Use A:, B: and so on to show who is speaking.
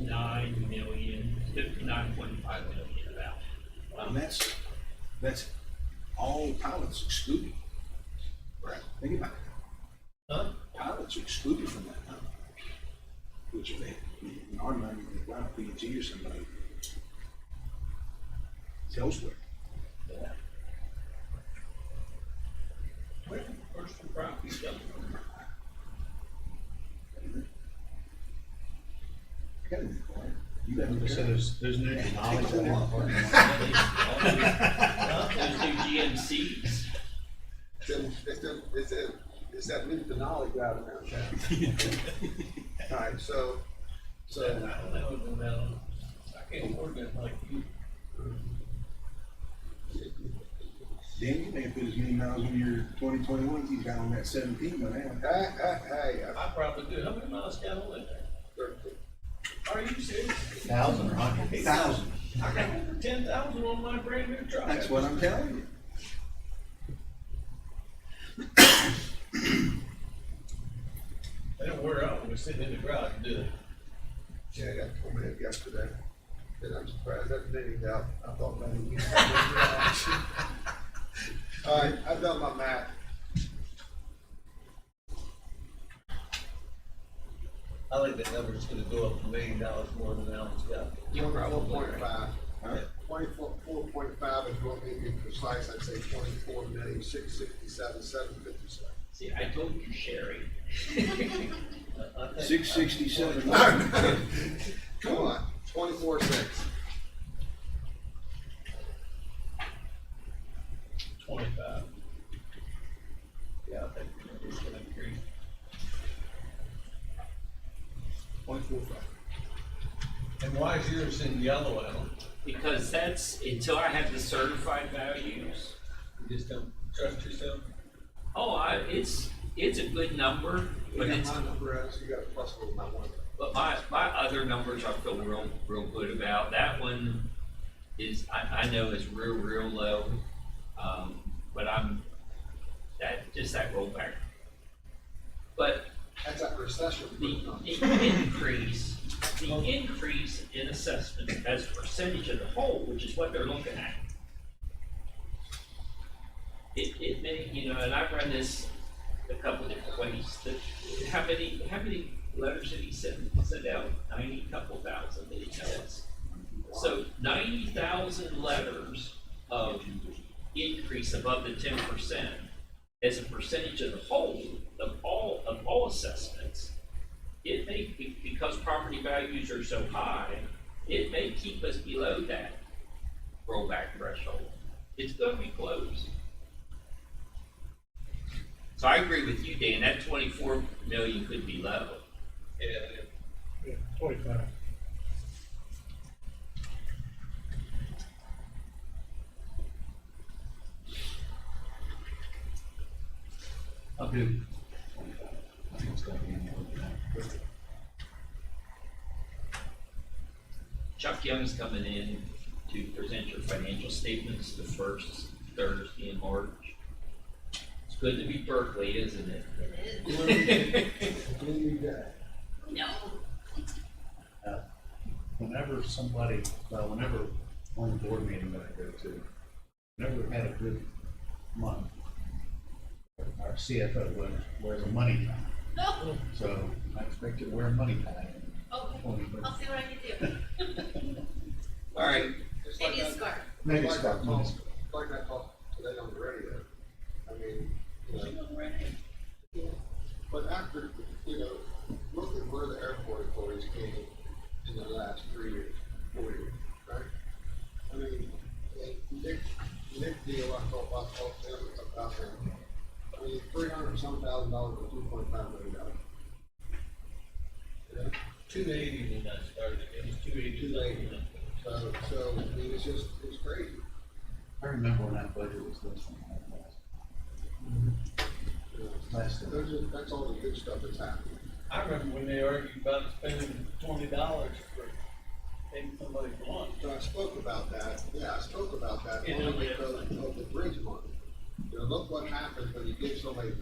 A: nine million, fifty-nine point five million about.
B: And that's, that's all pilots excluded. Right. Think about it,
A: Huh?
B: pilots are excluded from that number. Which if they, in our mind, if they fly a PNG or somebody, it's elsewhere.
A: Yeah. Where did the personal property come from?
B: I got a new car. You got a new
C: So
B: car.
C: there's, there's no
B: Take
C: knowledge
B: the whole lot.
A: All these- all these- huh? Those new GMCs.
D: It's, it's, the- it's, that- it's that new finale driving around town. All right, so,
A: So I don't know about, I can't afford that like you.
B: Dan, you may have put as many miles on your twenty twenty-one as you got on that seventeen by now.
D: hey, hey, hey, uh,
A: I probably do. How many miles got on it? Are you serious?
C: Thousand or hundred.
B: Thousand,
A: I got over ten thousand on my brand new truck.
B: that's what I'm telling you.
A: They don't wear out when they're sitting in the garage, do they?
D: yeah, I got four minutes yesterday, and I'm surprised that many out, I thought maybe. we- All right, I've done my math.
E: I think that number's gonna go up a million dollars more than Alan's got.
D: You're probably right. Twenty-four, four point five is what we be precise, I'd say twenty-four million, six sixty-seven, seven fifty-seven.
A: See, I told you, Sherry.
E: I- I think-
B: Six sixty-seven.
D: Come on, twenty-four, six.
A: Twenty-five. Yeah, I think it's gonna increase.
D: Twenty-four, five.
E: And why is yours in yellow, Alan?
A: Because that's, until I have the certified values,
E: You just don't trust yourself?
A: oh, I, it's, it's a good number,
D: You
A: but
D: got
A: it's,
D: my number, uh, so you got a plus one, my one.
A: but my, my other numbers I feel real, real good about. That one is, I, I know is real, real low. Um, but I'm, that, just that rollback. But
D: That's that recession.
A: The, the increase, the increase in assessment as a percentage of the whole, which is what they're looking at. It, it may, you know, and I've run this a couple different ways, that, how many, how many letters did he send, send out? Ninety couple thousand, did he tell us? So ninety thousand letters of increase above the ten percent as a percentage of the whole, of all, of all assessments it may, be- because property values are so high, it may keep us below that rollback threshold. It's gonna be close. So I agree with you, Dan, that twenty-four million could be low.
E: Yeah.
F: Yeah, twenty-five.
C: I'll do. I think it's gonna be in there.
A: Chuck Young's coming in to present your financial statements the first Thursday in March. It's good to be Berkeley, isn't it?
G: It is. No.
C: Whenever somebody, well, whenever on the board meeting that I go to, whenever we've had a good month, our CFO wears, wears a money tie.
G: Oh,
C: So I expect you to wear a money tie in
G: okay.
C: twenty,
G: I'll see what I can do.
A: All right,
D: Just like
G: Maybe a
D: that-
G: scarf.
C: maybe
D: like
C: it's about
D: that
C: money.
D: talk- Like I talked today on the radio, I mean, you know, but after, you know, look at where the airport authorities came in the last three years, four years, right? I mean, and Nick, Nick deal, I thought, I talked to him about that. I mean, three hundred some thousand dollars or two point five million dollars. You know?
E: Two eighty when I started, it was two eighty.
D: Too late. So, so, I mean, it's just, it's crazy.
C: I remember when that budget was less than that last,
D: you know?
C: last year.
D: Those are, that's all the good stuff that's happening.
E: I remember when they argued about spending twenty dollars for taking somebody's lawn.
D: So I spoke about that, yeah, I spoke about that
E: Yeah,
D: only
E: yeah.
D: because of the bridge money. You know, look what happens when you give somebody